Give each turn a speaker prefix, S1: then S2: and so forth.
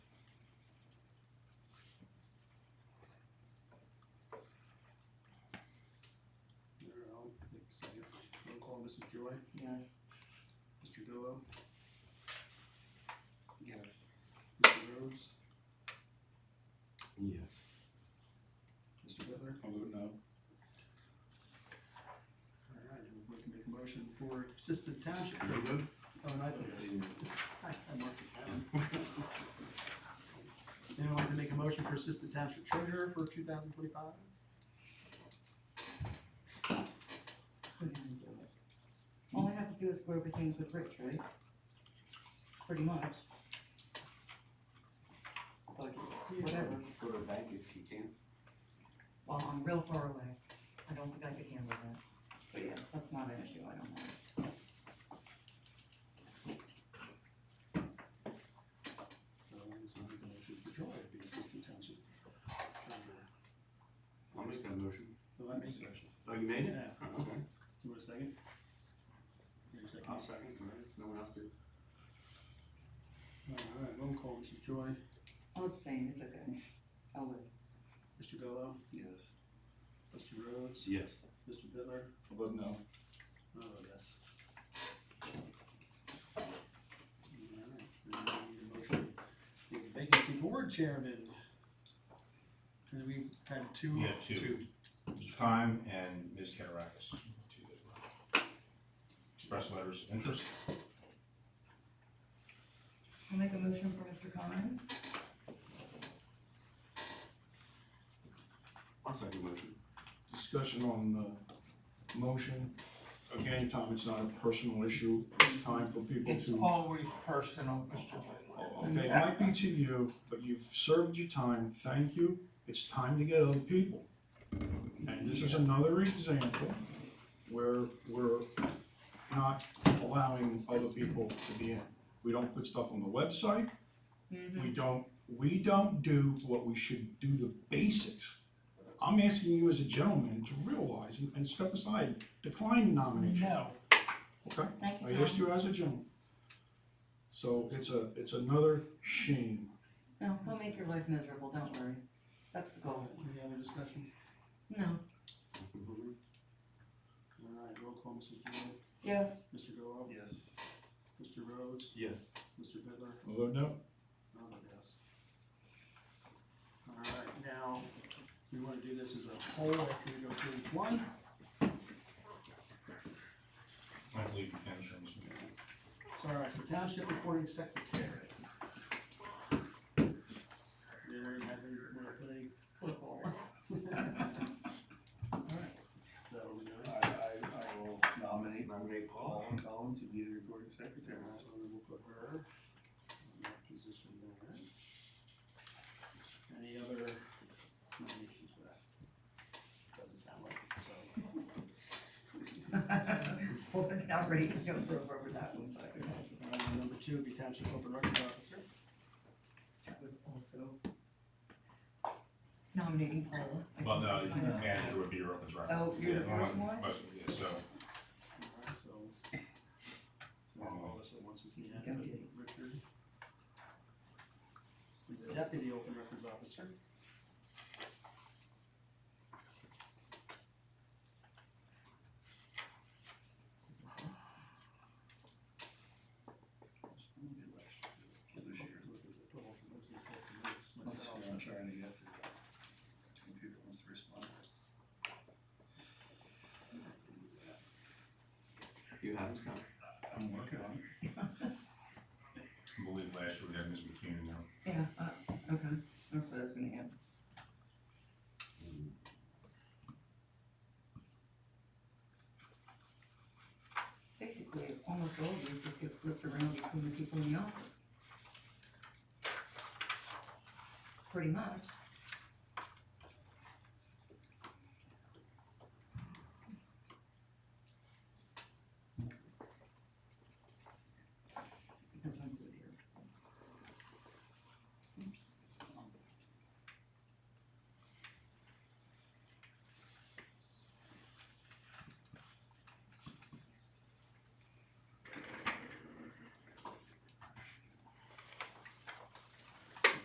S1: Second. Roll call, Mrs. Joy,
S2: Yes.
S1: Mr. Gallow? Yes. Mr. Rhodes,
S3: Yes.
S1: Mr. Bittler?
S4: I'll vote no.
S1: All right, and we can make a motion for assistant township treasurer.
S4: vote?
S1: Oh, and I vote yes. I I marked it down. Anyone like to make a motion for assistant township treasurer for two thousand twenty-five?
S2: All I have to do is go over things with Rich, right? Pretty much. But whatever,
S3: Go to bank if you can.
S2: well, I'm real far away. I don't think I could handle that. But yeah, that's not an issue, I don't know.
S1: So I'm going to motion for Joy to be assistant township treasurer.
S3: I'll make that motion.
S1: Well, that makes a motion.
S3: Oh, you made it?
S1: Yeah.
S3: Oh, Okay,
S1: You want a second? You want a second?
S3: I'll second, all right, no one else did.
S1: All right, roll call, Mrs. Joy,
S2: I'll abstain, it's okay. I'll live.
S1: Mr. Gallow,
S3: Yes.
S1: Mr. Rhodes,
S3: Yes.
S1: Mr. Bittler,
S4: I'll vote no.
S1: oh, yes. All right, then we need a motion for the vacancy board chairman. And we had two.
S5: Yeah, two. Mr. Kime and Ms. Katarakis. two that were Express letters of interest.
S6: I'll make a motion for Mr. Khan.
S3: I'll second motion.
S4: Discussion on the motion. Again, Tom, it's not a personal issue. It's time for people
S7: It's
S4: to.
S7: always personal, Mr. Whitmore.
S4: Okay, it might be to you, but you've served your time. Thank you. It's time to get other people. And this is another example where we're not allowing other people to be in. We don't put stuff on the website.
S2: Mm-hmm.
S4: We don't, we don't do what we should do the basics. I'm asking you as a gentleman to realize and- and step aside, decline nomination,
S7: No,
S4: okay?
S6: Thank
S4: I
S6: you,
S4: asked
S6: Tom.
S4: you as a gentleman. So it's a, it's another shame.
S2: No, he'll make your life miserable, don't worry. That's the goal.
S1: Any other discussion?
S2: No.
S1: All right, roll call, Mrs. Joy,
S2: Yes.
S1: Mr. Gallow,
S3: Yes.
S1: Mr. Rhodes,
S3: Yes.
S1: Mr. Bittler,
S4: Although, no,
S1: Oh, yes. All right, now, we want to do this as a whole, after we go through each one.
S5: I believe you can, Mr. Chairman.
S1: Sorry, for township reporting secretary. Did anyone have any, want to put any? All right. Is that what we're doing?
S3: uh, I, I, I will nominate. Nominate Paul Collins to be the recording secretary.
S1: All right, so then we'll put her in that position there. Any other nominations for that? Doesn't sound like it, so.
S2: Well, it's not ready to jump rope over that one, but
S1: Uh, number two would be township open records officer.
S2: that was also nominating Paula. I
S5: Well, no,
S2: think.
S5: the manager would be your open record.
S2: Oh, you're the
S5: Yeah,
S2: first
S5: um,
S2: one?
S5: most- yeah, so,
S1: Alright, so. So all of us at once is the end, but
S2: Deputy.
S1: Richard. With the Deputy Open Records Officer.
S4: I'm trying to get
S3: Two people must respond. You have this coming.
S4: I'm working on it.
S5: I believe last year we had Ms. McCune in there.
S2: Yeah, uh, okay, that's what I was gonna ask. Basically, almost all of these just get flipped around between the people in the office. Pretty much.